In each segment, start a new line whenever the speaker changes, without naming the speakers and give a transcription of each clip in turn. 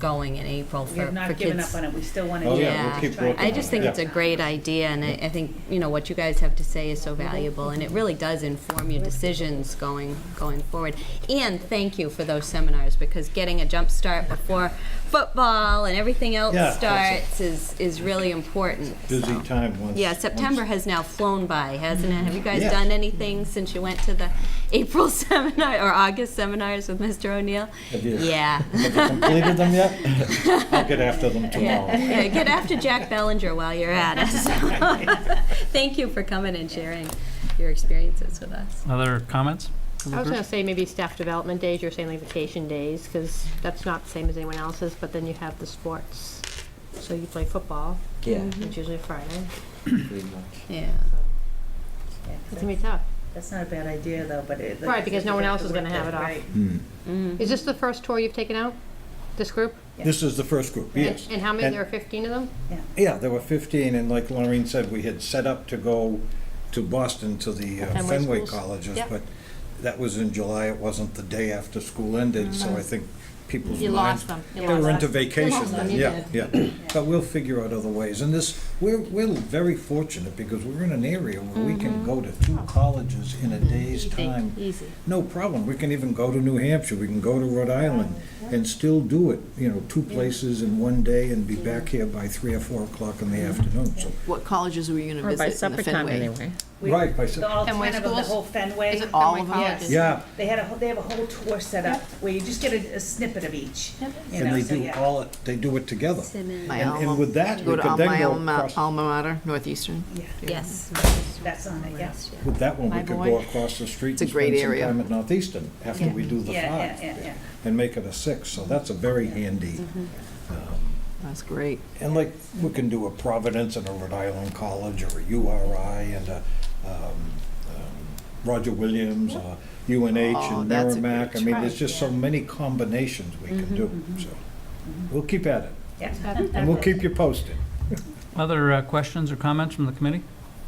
going in April for,
We have
for
not given
kids.
up on it, we still want to.
Oh,
yeah, we'll
keep working
I just think it's a
Yeah.
great idea, and I, I think, you know, what you guys have to say is so valuable, and it really does inform your decisions going, going forward. And thank you for those seminars, because getting a jump start before football and everything else
Yeah, that's it.
starts is, is really important.
busy
so.
time once.
Yeah, September has now flown by, hasn't it? Have you guys
Yeah.
done anything since you went to the April seminar or August seminars with Mr. O'Neill?
I did.
Yeah.
Have you completed them yet? I'll get after them tomorrow.
Yeah, get after Jack Bellinger while you're at it. Thank you for coming and sharing your experiences with us.
Other comments?
I
Mm-hmm.
was gonna say maybe staff development days, you're saying like vacation days, because that's not the same as anyone else's, but then you have the sports. So you play football,
Yeah,
which is usually Friday,
pretty much.
Yeah.
so
Yeah,
it's gonna be tough.
That's not a bad idea, though, but it.
Right, because no one else is gonna have it off.
Right.
Hmm.
Mm.
Is this the first tour you've taken out, this group?
This is the first group, yes.
And how many, there are fifteen of them?
Yeah, there were 15, and like Lorraine said, we had set up to go to Boston to the uh,
Fenway
Fenway
schools.
colleges,
Yep.
but that was in July, it wasn't the day after school ended,
Mm-hmm.
so I think people's minds.
You lost them. You
They
lost
were into
them.
vacation
lost them,
then,
you
yeah, yeah. But we'll figure out other ways, and this, we're, we're very fortunate because we're in an area where we can go to two colleges in a day's
Easy,
time.
Easy.
No problem. We can even go to New Hampshire, we can go to Rhode Island and still do it, you know, two places in one day and be back here by three or four o'clock in the afternoon, so.
What colleges were you going to
Or by
visit in the
supper time,
Fenway?
anyway.
We-
Right, by Sep-
All ten
Fenway
of them, the
schools?
whole Fenway.
Is it
all
Fenway
of them?
Colleges?
Yeah,
They had a, whole- they have a whole tour set up where you just get a a snippet of each, you
and
know,
they
so
do
yeah.
all, it. they do it together.
My
And- and
alma-
with that,
go
we
to
could
al-
then
my
go
alma-
across-
Alma mater, Northeastern.
Yes.
That's on it, yes.
With that one, we
My
could
boy.
go across the street
It's a
and spend
great
some
area.
time at Northeastern after we do the
Yeah, yeah,
five.
yeah, Mm-hmm. yeah.
And make it a six, so that's a very handy.
That's great.
And like, we can do a Providence and a Rhode Island College, or a URI and a um, um, Roger Williams, or UNH
Oh,
and
that's a
Merrimack. I
good
mean, there's just so many combinations we
Mm-hmm,
can do, so we'll keep at it.
Yeah.
And we'll keep you posted.
Other uh, questions or comments from the committee?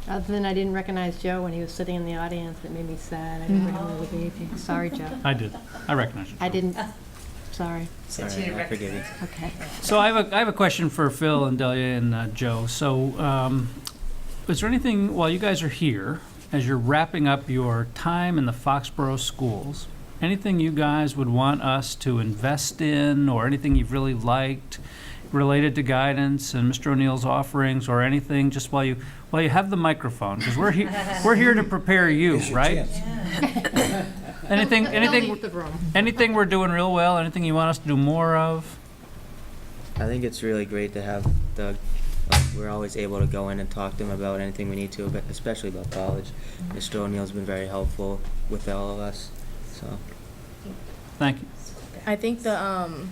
Other than I didn't recognize Joe when he was sitting in the audience, it made me sad. I didn't recognize the evening. Sorry, Joe.
I did. I recognize you.
I didn't, sorry.
Since you
Sorry, I forget it.
Okay.
So I have a, I have a question for Phil and Delia and uh, Joe. So um, is there anything, while you guys are here, as you're wrapping up your time in the Foxborough schools, anything you guys would want us to invest in or anything you've really liked related to guidance and Mr. O'Neill's offerings or anything, just while you, while you have the microphone? Because we're here, we're here to prepare you,
It's your
right?
chance.
Anything,
They'll
anything,
leave the room.
anything we're doing real well, anything you want us to do more of?
I think it's really great to have Doug. Like, we're always able to go in and talk to him about anything we need to, but especially about college. Mr. O'Neill's been very helpful with all of us. So
Thank you.
I think the um,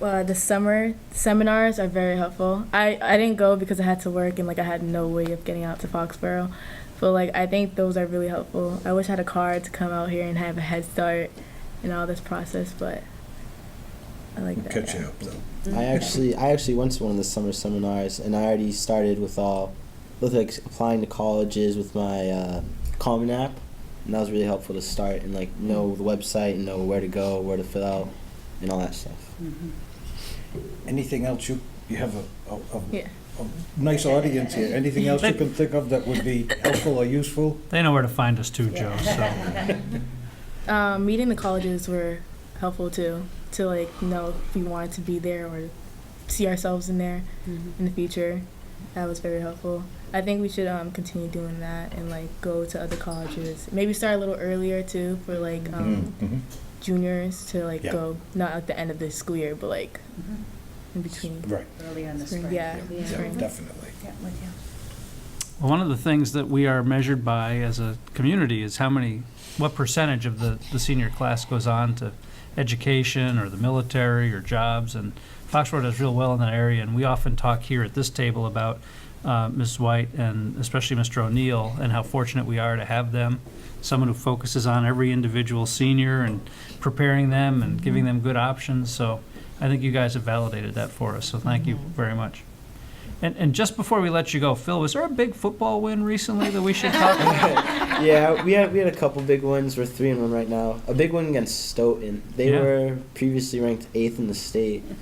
uh, the summer seminars are very helpful. I, I didn't go because I had to work and like I had no way of getting out to Foxborough, but like I think those are really helpful. I wish I had a car to come out here and have a head start in all this process, but I like
We'll
that.
catch
yeah.
you up, though.
Mm-hmm.
I actually, I actually went to one of the summer seminars, and I already started with all, with like applying to colleges with my uh, Common App, and that was really helpful to start and like know the website and know where to go, where to fill out, and all that stuff.
Mm-hmm,
Anything else you, you have a, a- a-
Yeah.
a nice audience here. Anything else you can think of that would be helpful or useful?
They know where to find us too, Joe, so.
Um, meeting the colleges were helpful too to like know if we wanted to be there or see ourselves in there in the future. That was very helpful. I think we should um, continue doing that and like go to other colleges. Maybe start a little earlier too for like um,
Mhm.
juniors to like
Yeah.
go not at the end of the school year, but like
Mhm.
in between.
Right,
Early on this
Spring,
spring.
uh, yeah.
yeah,
Spring.
definitely.
Yeah, with you.
Well, One of the things that we are measured by as a community is how many, what percentage of the, the senior class goes on to education or the military or jobs. And Foxborough does real well in that area. And we often talk here at this table about uh, Ms. White and especially Mr. O'Neill and how fortunate we are to have them. Someone who focuses on every individual senior and preparing them and giving them good options. So I think you guys have validated that for us. So thank you very much. And, and just before we let you go, Phil, was there a big football win recently that we should talk about?
yeah, we had we had a couple big ones. We're three and one right now. A big one against Stoughton. They
Yeah.
were previously ranked eighth in the state.